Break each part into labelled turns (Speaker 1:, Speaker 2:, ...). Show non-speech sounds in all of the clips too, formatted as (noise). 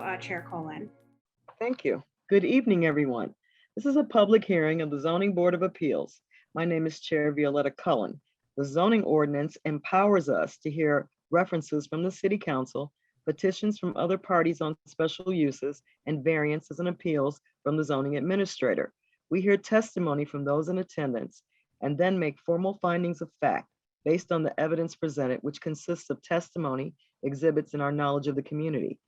Speaker 1: uh, Chair Colin.
Speaker 2: Thank you. Good evening, everyone. This is a public hearing of the Zoning Board of Appeals. My name is Chair Violetta Cullen. The zoning ordinance empowers us to hear references from the city council, petitions from other parties on special uses and variances and appeals from the zoning administrator. We hear testimony from those in attendance and then make formal findings of fact based on the evidence presented, which consists of testimony, exhibits, and our knowledge of the community.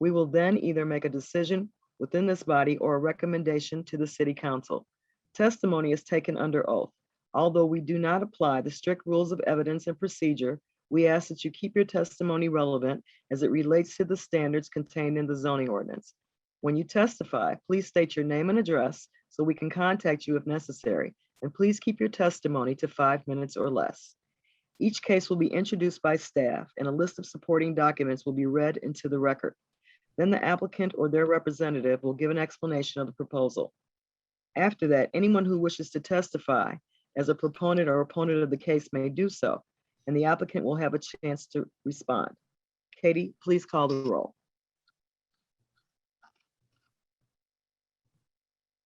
Speaker 2: We will then either make a decision within this body or a recommendation to the city council. Testimony is taken under oath. Although we do not apply the strict rules of evidence and procedure, we ask that you keep your testimony relevant as it relates to the standards contained in the zoning ordinance. When you testify, please state your name and address so we can contact you if necessary, and please keep your testimony to five minutes or less. Each case will be introduced by staff, and a list of supporting documents will be read into the record. Then the applicant or their representative will give an explanation of the proposal. After that, anyone who wishes to testify as a proponent or opponent of the case may do so, and the applicant will have a chance to respond. Katie, please call the roll.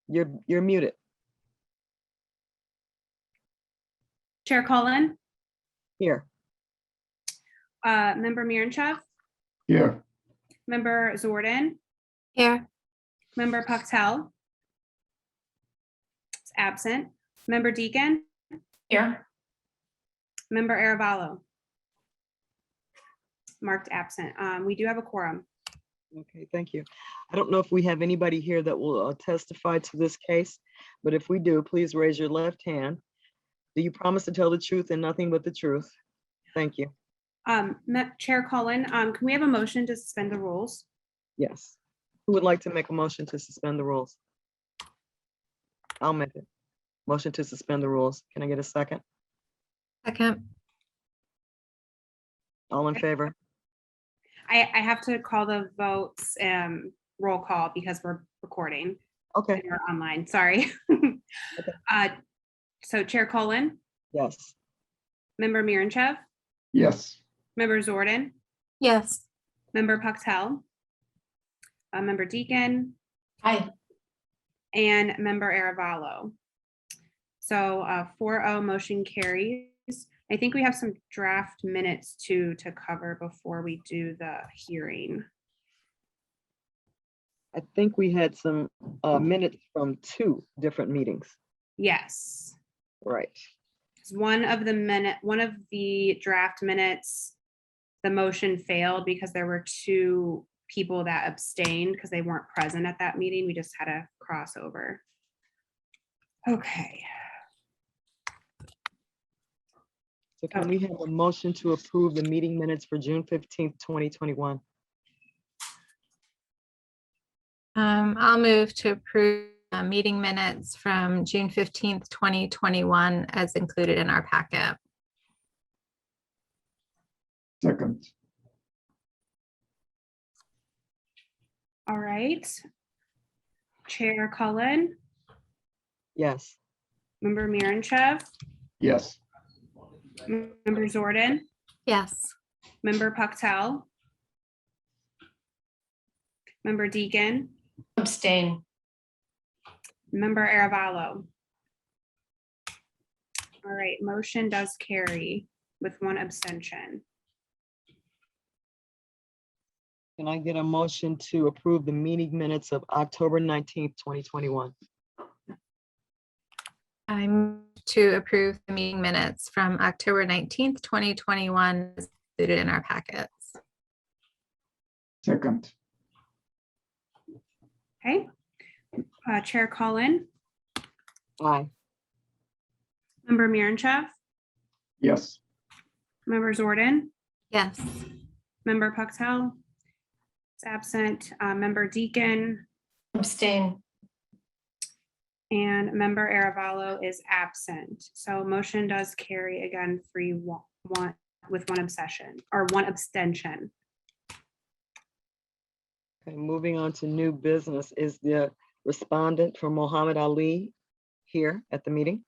Speaker 2: You're, you're muted.
Speaker 1: Chair Colin,
Speaker 2: Here.
Speaker 1: uh, Member Miranchov,
Speaker 3: Here,
Speaker 1: Member Zordan,
Speaker 4: Here,
Speaker 1: Member Pucktall. It's absent. Member Deacon,
Speaker 5: Here,
Speaker 1: Member Aravalo. Marked absent. Um, We do have a quorum.
Speaker 2: Okay, thank you. I don't know if we have anybody here that will uh, testify to this case, but if we do, please raise your left hand. Do you promise to tell the truth and nothing but the truth? Thank you.
Speaker 1: Um, Ma- Chair Colin, um, can we have a motion to suspend the rules?
Speaker 2: Yes. Who would like to make a motion to suspend the rules? I'll make it. Motion to suspend the rules. Can I get a second?
Speaker 4: second.
Speaker 2: All in favor?
Speaker 1: I, I have to call the votes, um, roll call because we're recording.
Speaker 2: Okay,
Speaker 1: They're online, sorry. (laughs) Uh, So Chair Colin,
Speaker 2: yes.
Speaker 1: Member Miranchov,
Speaker 3: yes,
Speaker 1: Member Zordan,
Speaker 4: Yes,
Speaker 1: Member Pucktall, uh, Member Deacon,
Speaker 5: aye,
Speaker 1: and Member Aravalo. So four oh motion carries. I think we have some draft minutes to, to cover before we do the hearing.
Speaker 2: I think we had some uh, minutes from two different meetings.
Speaker 1: Yes.
Speaker 2: Right.
Speaker 1: 'Cause One of the minute, one of the draft minutes, the motion failed because there were two people that abstained because they weren't present at that meeting. We just had a crossover. Okay,
Speaker 2: So can we have a motion to approve the meeting minutes for June fifteenth, twenty twenty-one?
Speaker 4: um, I'll move to approve uh, meeting minutes from June fifteenth, twenty twenty-one, as included in our packet.
Speaker 3: second,
Speaker 1: all right. Chair Cullen,
Speaker 2: Yes,
Speaker 1: member Miranchov,
Speaker 3: yes,
Speaker 1: member Zordan,
Speaker 4: Yes,
Speaker 1: member Pucktall, member Deacon,
Speaker 5: abstain,
Speaker 1: Member Aravalo. All right, motion does carry with one abstention.
Speaker 2: can I get a motion to approve the meeting minutes of October nineteenth, twenty twenty-one?
Speaker 4: I move to approve the meeting minutes from October nineteenth, twenty twenty-one, as included in our packets.
Speaker 3: second,
Speaker 1: Okay. Uh, Chair Colin,
Speaker 2: Aye,
Speaker 1: Member Miranchov,
Speaker 3: yes,
Speaker 1: Member Zordan,
Speaker 4: Yes,
Speaker 1: Member Pucktall. It's absent, uh, Member Deacon
Speaker 5: abstain,
Speaker 1: and Member Aravalo is absent. So motion does carry again free one, with one obsession or one abstention.
Speaker 2: okay, moving on to new business, is the respondent for Mohammed Ali here at the meeting?